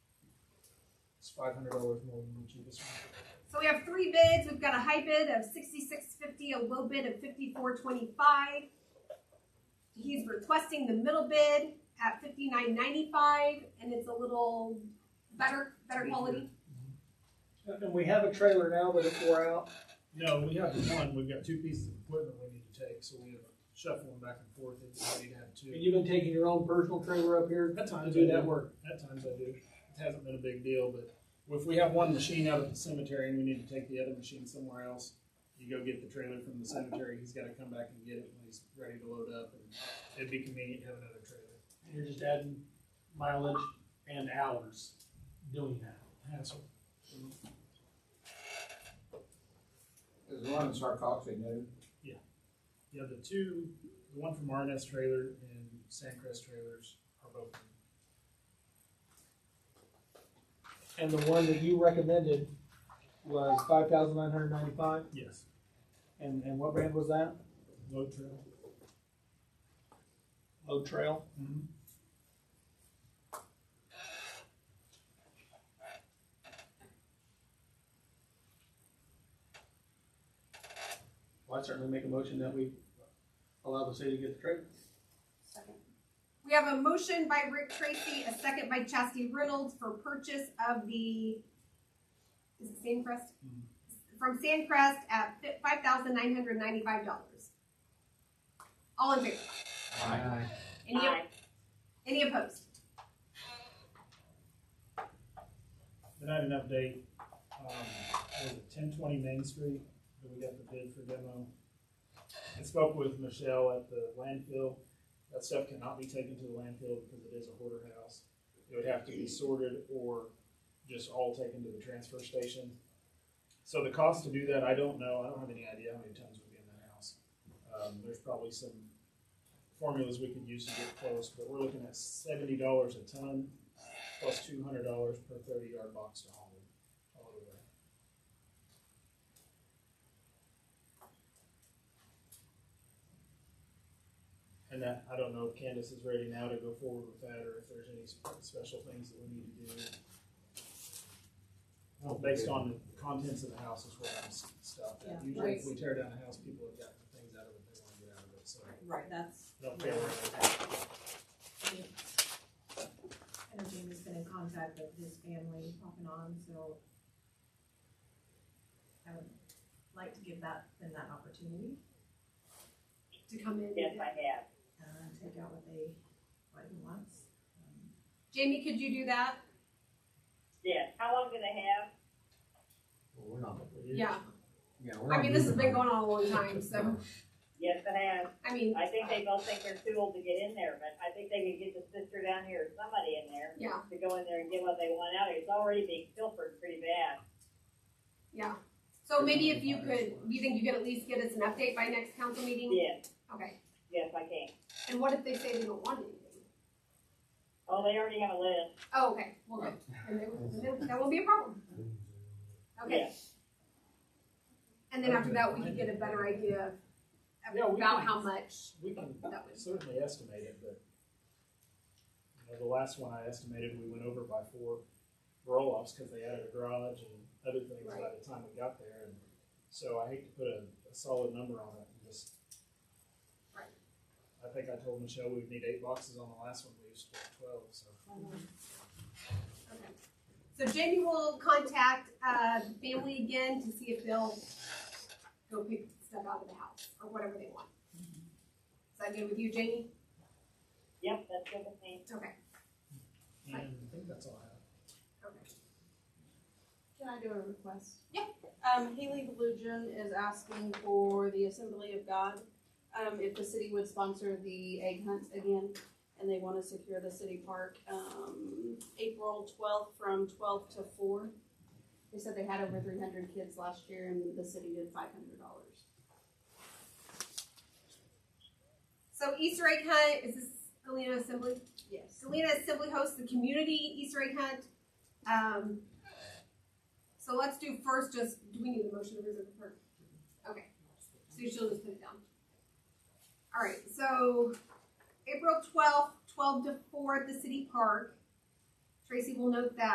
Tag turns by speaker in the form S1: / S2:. S1: It's five hundred dollars more than the cheapest one.
S2: So we have three bids. We've got a high bid of sixty-six fifty, a low bid of fifty-four twenty-five. He's requesting the middle bid at fifty-nine ninety-five, and it's a little better, better quality.
S3: And we have a trailer now that it wore out.
S1: No, we have one, we've got two pieces of equipment we need to take, so we have shuffling back and forth, and we need to have two.
S3: And you've been taking your own personal trailer up here
S1: At
S3: to
S1: times,
S3: do that work.
S1: At times I do. It hasn't been a big deal, but if we have one machine out at the cemetery and we need to take the other machine somewhere else, you go get the trailer from the cemetery, he's gotta come back and get it when he's ready to load up, and it'd be convenient to have another trailer.
S3: And You're just adding mileage and hours doing that.
S1: Hassle.
S4: Is the one in Sarcoxy new?
S1: Yeah, the two, the one from RNS trailer and Sandcrest trailers are both.
S3: And the one that you recommended was five thousand nine hundred ninety-five,
S1: Yes.
S3: and, and what brand was that?
S1: Load trail.
S3: Low Trail.
S1: Mm-hmm.
S3: Well, I'd certainly make a motion that we allow the city to get the trailer.
S2: Second. We have a motion by Rick Tracy, a second by Chastity Reynolds for purchase of the, is it Sandcrest?
S1: Mhm.
S2: From Sandcrest at five thousand nine hundred ninety-five dollars. All in favor?
S4: Aye.
S2: Any, any opposed?
S1: Then I had an update, um, was it ten twenty Main Street, that we got the bid for demo. I spoke with Michelle at the landfill, that stuff cannot be taken to the landfill because it is a hoarder house. It would have to be sorted or just all taken to the transfer station. So the cost to do that, I don't know, I don't have any idea how many tons would be in that house. Um, there's probably some formulas we could use to get close, but we're looking at seventy dollars a ton plus two hundred dollars per thirty yard box to haul it all the way. And that, I don't know if Candace is ready now to go forward with that, or if there's any sp- special things that we need to do. Well, based on the contents of the house is where I'm s- stopped
S5: Yeah,
S1: at. Usually if we
S5: right.
S1: tear down a house, people have got things out of it, they wanna get out of it, so.
S5: Right, that's,
S1: No, fair enough.
S5: and Jamie's been in contact with his family off and on, so I would like to give that, them that opportunity,
S2: To come in?
S6: Yes, I have.
S5: uh, take out what they, what he wants. Um,
S2: Jamie, could you do that?
S6: Yes. How long do they have?
S7: Well, we're not.
S2: Yeah,
S7: Yeah, we're not.
S2: I mean, this has
S7: moving
S2: been
S7: on.
S2: going on a long time, so,
S6: Yes, I have.
S2: I mean,
S6: I think they both think they're too old to get in there, but I think they could get the sister down here or somebody in there
S2: Yeah.
S6: to go in there and get what they want out. It's already being filtered pretty bad.
S2: yeah. So maybe if you could, do you think you could at least get us an update by next council meeting?
S6: Yes,
S2: Okay,
S6: yes, I can.
S2: and what if they say they don't want anything?
S6: Oh, they already have a list.
S2: Oh, okay, well, good. And then- then that won't be a problem. Okay. And then after that, we can get a better idea of-
S1: Yeah, we
S2: about
S1: can-
S2: how much
S1: We can
S2: that would.
S1: certainly estimate it, but, you know, the last one I estimated, we went over by four roll-offs because they added a garage and other things by the time we got there, and so I hate to put a, a solid number on it and just.
S2: Right.
S1: I think I told Michelle we would need eight boxes on the last one, we used to have twelve, so.
S2: Okay. So Jamie will contact, uh, the family again to see if they'll go pick stuff out of the house or whatever they want. Is that good with you, Jamie?
S6: Yep, that's good with me.
S2: Okay,
S1: And I think that's all I have.
S2: okay.
S8: Can I do a request?
S2: Yeah.
S8: Um, Haley Belugin is asking for the Assembly of God, um, if the city would sponsor the egg hunt again, and they wanna secure the city park, um, April twelfth from twelve to four. They said they had over three hundred kids last year, and the city did five hundred dollars.
S2: So Easter egg hunt, is this Galena Assembly?
S8: Yes.
S2: Galena Assembly hosts the community Easter egg hunt. Um, so let's do first just, do we need a motion to reserve the park? Okay, so she'll just put it down. All right, so April twelfth, twelve to four at the city park. Tracy will note that.